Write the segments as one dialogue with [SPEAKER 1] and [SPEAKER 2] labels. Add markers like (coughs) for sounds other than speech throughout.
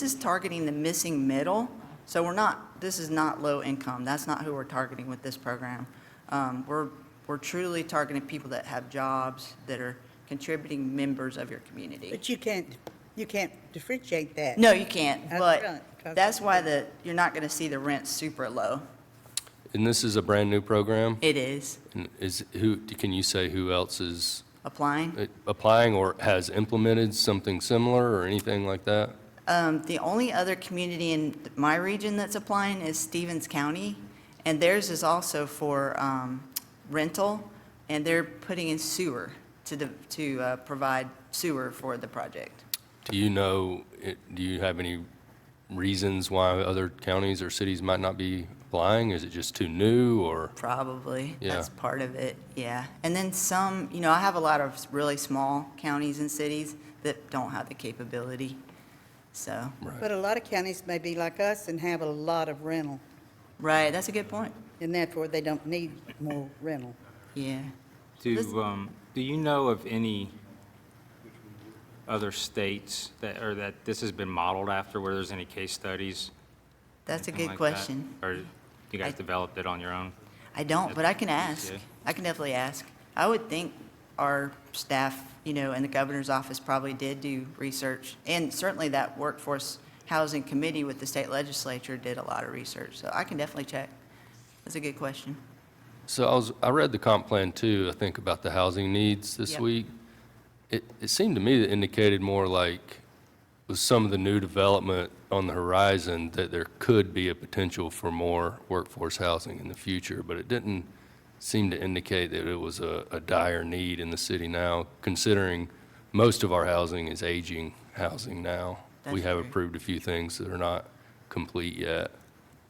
[SPEAKER 1] This is targeting the missing middle, so we're not, this is not low income. That's not who we're targeting with this program. Um, We're, we're truly targeting people that have jobs, that are contributing members of your community.
[SPEAKER 2] But you can't, you can't differentiate that.
[SPEAKER 1] No, you can't,
[SPEAKER 2] That's
[SPEAKER 1] but
[SPEAKER 2] brilliant. That's-
[SPEAKER 1] that's why the, you're not going to see the rent super low.
[SPEAKER 3] And this is a brand-new program?
[SPEAKER 1] It is
[SPEAKER 3] And Is, who, can you say who else is
[SPEAKER 1] applying.
[SPEAKER 3] uh, applying or has implemented something similar or anything like that?
[SPEAKER 1] Um, The only other community in my region that's applying is Stevens County, and theirs is also for um, rental, and they're putting in sewer to, the- to uh, provide sewer for the project.
[SPEAKER 3] Do you know, it- do you have any reasons why other counties or cities might not be applying? Is it just too new or?
[SPEAKER 1] Probably.
[SPEAKER 3] Yeah.
[SPEAKER 1] That's part of it, yeah. And then some, you know, I have a lot of really small counties and cities that don't have the capability, so,
[SPEAKER 2] But a lot of counties may be like us and have a lot of rental,
[SPEAKER 1] right, that's a good point,
[SPEAKER 2] and therefore they don't need more rental.
[SPEAKER 1] yeah. Listen-
[SPEAKER 4] Do, um, do you know of any other states that, or that this has been modeled after, where there's any case studies?
[SPEAKER 1] That's a
[SPEAKER 4] anything
[SPEAKER 1] good
[SPEAKER 4] like that?
[SPEAKER 1] question.
[SPEAKER 4] Or you
[SPEAKER 1] I-
[SPEAKER 4] guys developed it on your own?
[SPEAKER 1] I don't, but I can ask.
[SPEAKER 4] Yeah.
[SPEAKER 1] I can definitely ask. I would think our staff, you know, and the governor's office probably did do research, and certainly that workforce housing committee with the state legislature did a lot of research, so I can definitely check. That's a good question.
[SPEAKER 3] So I was, I read the comp plan too, I think about the housing needs this
[SPEAKER 1] Yep.
[SPEAKER 3] week. It, it seemed to me that indicated more like with some of the new development on the horizon, that there could be a potential for more workforce housing in the future, but it didn't seem to indicate that it was a, a dire need in the city now, considering most of our housing is aging housing now. We
[SPEAKER 1] That's
[SPEAKER 3] have
[SPEAKER 1] true.
[SPEAKER 3] approved a few things that are not complete yet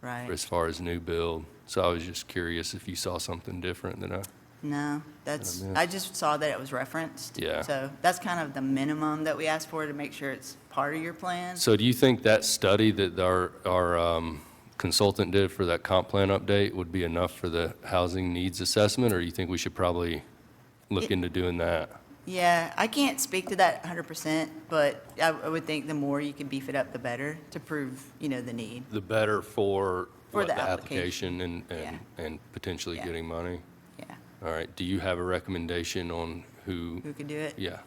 [SPEAKER 1] Right.
[SPEAKER 3] as far as new build. So I was just curious if you saw something different than I,
[SPEAKER 1] No, that's,
[SPEAKER 3] man.
[SPEAKER 1] I just saw that it was referenced.
[SPEAKER 3] Yeah.
[SPEAKER 1] So that's kind of the minimum that we ask for to make sure it's part of your plan.
[SPEAKER 3] so do you think that study that our, our um, consultant did for that comp plan update would be enough for the housing needs assessment? Or you think we should probably look
[SPEAKER 1] It-
[SPEAKER 3] into doing that?
[SPEAKER 1] Yeah, I can't speak to that 100%, but I I would think the more you can beef it up, the better to prove, you know, the need.
[SPEAKER 3] The better for
[SPEAKER 1] For
[SPEAKER 3] what,
[SPEAKER 1] the
[SPEAKER 3] the application and, and, and potentially
[SPEAKER 1] Yeah.
[SPEAKER 3] getting money?
[SPEAKER 1] Yeah,
[SPEAKER 3] All right, do you have a recommendation on who,
[SPEAKER 1] who could do it?
[SPEAKER 3] yeah?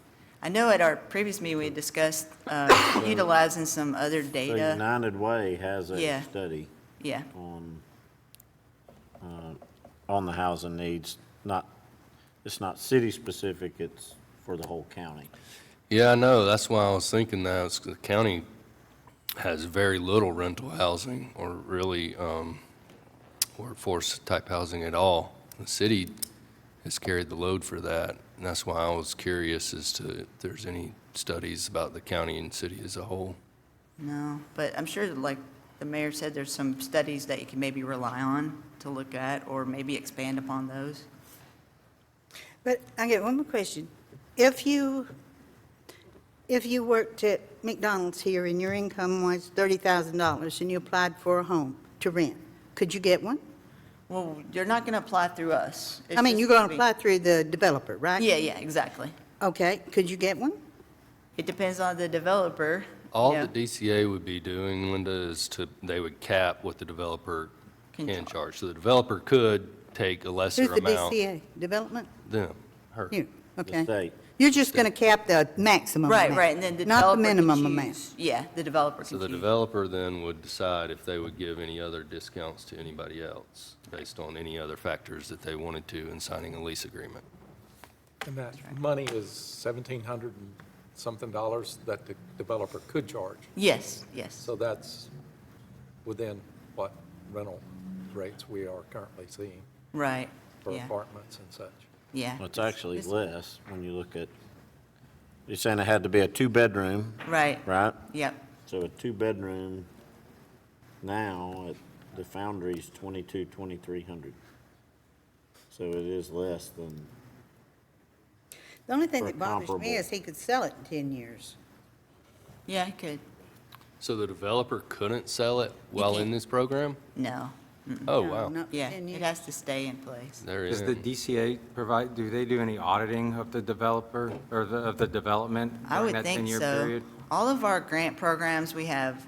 [SPEAKER 1] I know at our previous meeting, we discussed
[SPEAKER 3] (coughs)
[SPEAKER 1] uh, utilizing some other
[SPEAKER 5] The
[SPEAKER 1] data.
[SPEAKER 5] United Way has
[SPEAKER 1] Yeah.
[SPEAKER 5] a study
[SPEAKER 1] Yeah,
[SPEAKER 5] on, uh, on the housing needs, not, it's not city-specific, it's for the whole county.
[SPEAKER 3] Yeah, I know, that's why I was thinking that, is 'cause the county has very little rental housing or really um, workforce-type housing at all. The city has carried the load for that, and that's why I was curious as to if there's any studies about the county and city as a whole.
[SPEAKER 1] no, but I'm sure, like the mayor said, there's some studies that you can maybe rely on to look at, or maybe expand upon those.
[SPEAKER 2] But I get one more question. If you, if you worked at McDonald's here and your income was $30,000 and you applied for a home to rent, could you get one?
[SPEAKER 1] Well, you're not going to apply through us. It's
[SPEAKER 2] I mean,
[SPEAKER 1] just
[SPEAKER 2] you're going
[SPEAKER 1] gonna
[SPEAKER 2] to
[SPEAKER 1] be-
[SPEAKER 2] apply through the developer, right?
[SPEAKER 1] Yeah, yeah, exactly.
[SPEAKER 2] Okay, could you get one?
[SPEAKER 1] It depends on the developer.
[SPEAKER 3] All
[SPEAKER 1] Yeah.
[SPEAKER 3] the DCA would be doing, Linda, is to, they would cap what the developer
[SPEAKER 1] Can
[SPEAKER 3] can
[SPEAKER 1] charge.
[SPEAKER 3] charge. So the developer could take a lesser
[SPEAKER 2] Who's the
[SPEAKER 3] amount.
[SPEAKER 2] DCA? Development?
[SPEAKER 3] Them, her.
[SPEAKER 2] You,
[SPEAKER 5] The
[SPEAKER 2] okay.
[SPEAKER 5] state,
[SPEAKER 2] You're just going to cap the maximum amount.
[SPEAKER 1] Right, right, and then the
[SPEAKER 2] Not
[SPEAKER 1] developer
[SPEAKER 2] the
[SPEAKER 1] can
[SPEAKER 2] minimum amount.
[SPEAKER 1] choose. Yeah, the developer
[SPEAKER 3] So
[SPEAKER 1] can
[SPEAKER 3] the
[SPEAKER 2] Mm-hmm.
[SPEAKER 1] choose.
[SPEAKER 3] developer then would decide if they would give any other discounts to anybody else based on any other factors that they wanted to in signing a lease agreement.
[SPEAKER 6] And that money is seventeen hundred and something dollars that the developer could charge.
[SPEAKER 1] Yes, yes,
[SPEAKER 6] So that's within what rental rates we are currently seeing
[SPEAKER 1] right,
[SPEAKER 6] for
[SPEAKER 1] yeah,
[SPEAKER 6] apartments and such.
[SPEAKER 1] yeah.
[SPEAKER 5] it's actually
[SPEAKER 1] It's-
[SPEAKER 5] less when you look at, you're saying it had to be a two-bedroom,
[SPEAKER 1] Right,
[SPEAKER 5] right?
[SPEAKER 1] yep,
[SPEAKER 5] So a two-bedroom now at the Foundry's twenty-two, twenty-three hundred. So it is less than,
[SPEAKER 2] The only thing
[SPEAKER 5] For
[SPEAKER 2] that bothers me
[SPEAKER 5] comparable.
[SPEAKER 2] is he could sell it in 10 years.
[SPEAKER 1] yeah, I could,
[SPEAKER 3] So the developer couldn't sell it while in
[SPEAKER 1] can't.
[SPEAKER 3] this program?
[SPEAKER 1] no,
[SPEAKER 3] Oh,
[SPEAKER 2] No,
[SPEAKER 3] wow.
[SPEAKER 2] not for
[SPEAKER 1] yeah,
[SPEAKER 2] 10
[SPEAKER 1] it
[SPEAKER 2] years.
[SPEAKER 1] has to stay in place.
[SPEAKER 3] There
[SPEAKER 4] Does
[SPEAKER 3] is.
[SPEAKER 4] the DCA provide, do they do any auditing of the developer, or the, of the development
[SPEAKER 1] I
[SPEAKER 4] during
[SPEAKER 1] would
[SPEAKER 4] that
[SPEAKER 1] think
[SPEAKER 4] 10-year
[SPEAKER 1] so.
[SPEAKER 4] period?
[SPEAKER 1] All of our grant programs, we have